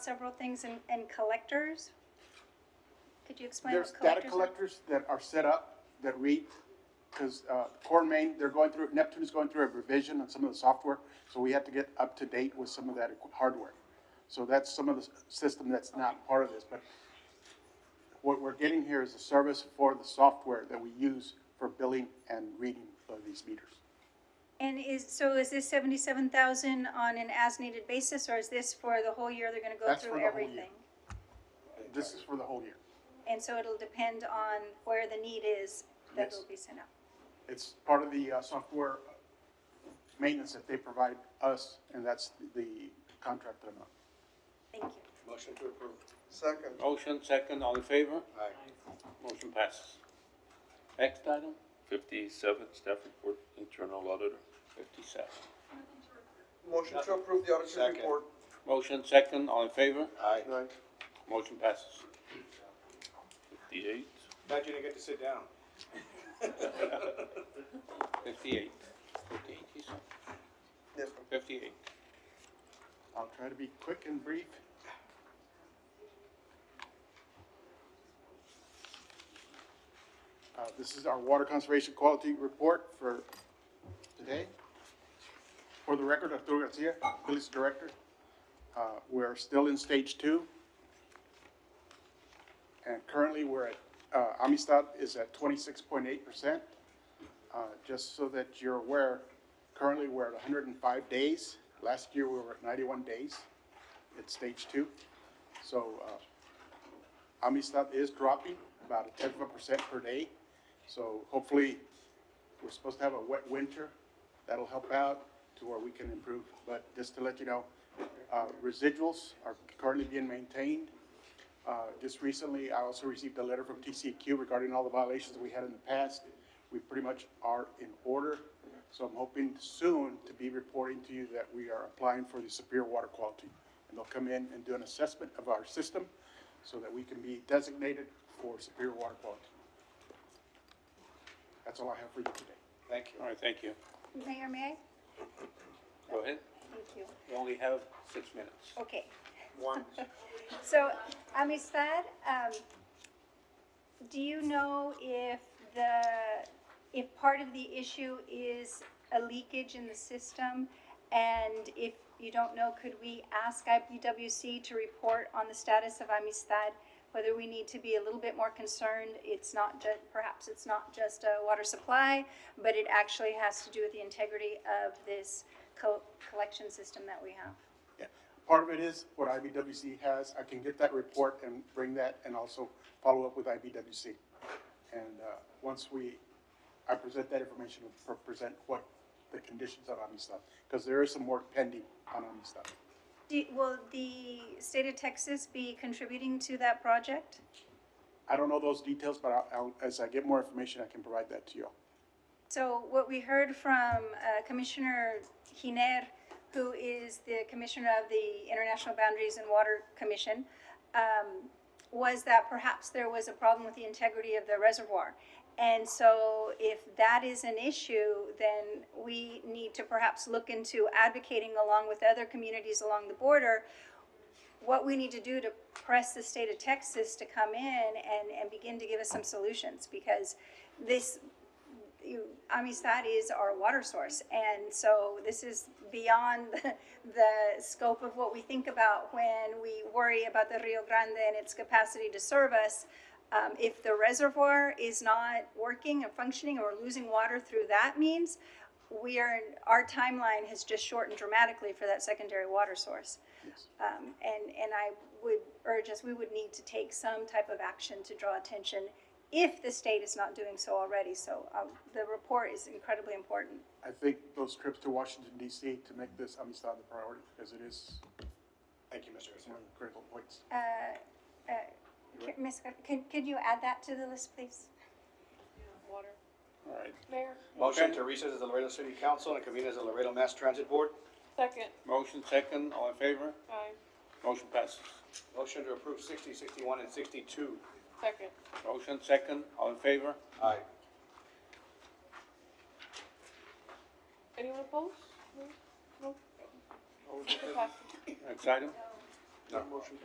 several things and, and collectors? Could you explain There's what data collectors are? collectors that are set up that read, because Core Main, they're going through, Neptune is going through a revision on some of the software, so we have to get up to date with some of that equi- hardware. So that's some of the s- system that's not part of this, but what we're getting here is a service for the software that we use for billing and reading of these meters. And is, so is this seventy-seven thousand on an as-needed basis, or is this for the whole year, they're gonna go That's through for everything? the whole year. This is for the whole year. And so it'll depend on where the need is that Yes. it'll be sent out? It's part of the uh, software maintenance that they provide us, and that's the contract amount. Thank you. Motion to approve. Second. Motion second, all in favor? Aye. Motion passes. Next item, Fifty-seven, staff report, internal auditor. fifty-seven. Motion to approve the auditor's Second. report. Motion second, all in favor? Aye. Aye. Motion passes. Fifty-eight, Glad you didn't get to sit down. Fifty-eight. Fifty-eight, he said. Yes, ma'am. Fifty-eight. I'll try to be quick and brief. Uh, this is our water conservation quality report for today. For the record, Arturo Garcia, police director. Uh, we're still in stage two. And currently, we're at, uh, Amistad is at twenty-six point eight percent. Uh, just so that you're aware, currently we're at hundred and five days. Last year we were at ninety-one days at stage two. So, uh, Amistad is dropping about a tenth of a percent per day. So hopefully, we're supposed to have a wet winter. That'll help out to where we can improve. But just to let you know, uh, residuals are currently being maintained. Uh, Just recently, I also received a letter from TCEQ regarding all the violations we had in the past. We pretty much are in order, so I'm hoping soon to be reporting to you that we are applying for the superior water quality. And they'll come in and do an assessment of our system so that we can be designated for superior water quality. That's all I have for you today. Thank you. All right, thank you. Mayor, may I? Go ahead. Thank you. You only have six minutes. Okay. One. So, Amistad, um, do you know if the, if part of the issue is a leakage in the system? And if you don't know, could we ask IPWC to report on the status of Amistad? Whether we need to be a little bit more concerned, it's not ju, perhaps it's not just a water supply, but it actually has to do with the integrity of this co- collection system that we have. Yeah, Part of it is what IBWC has. I can get that report and bring that and also follow up with IBWC. And, uh, once we, I present that information, we'll pre- present what the conditions of Amistad, because there is some work pending on Amistad. Do, will the state of Texas be contributing to that project? I don't know those details, but I'll, I'll, as I get more information, I can provide that to you. all. So what we heard from uh, Commissioner Giner, who is the Commissioner of the International Boundaries and Water Commission, um, was that perhaps there was a problem with the integrity of the reservoir. And so if that is an issue, then we need to perhaps look into advocating along with other communities along the border what we need to do to press the state of Texas to come in and, and begin to give us some solutions because this, you, Amistad is our water source. And so this is beyond the, the scope of what we think about when we worry about the Rio Grande and its capacity to serve us. Um, if the reservoir is not working and functioning or we're losing water through that means, we are, our timeline has just shortened dramatically for that secondary water source. Um, and, and I would urge us, we would need to take some type of action to draw attention if the state is not doing so already. So, um, the report is incredibly important. I think those trips to Washington DC to make this Amistad the priority, because it is Thank you, Mr. Garcia. one of the critical points. Uh, uh, can- Ms. Gar- Can, could you add that to the list, please? All right. Mayor, Motion Okay. to recess as the Laredo City Council and convene as the Laredo Mass Transit Board. second. Motion second, all in favor? Aye. Motion passes. Motion to approve 60, 61, and sixty-two. Second. Motion second, all in favor? Aye. Anyone opposed? No? No? Motion passes. Next item? No. Motion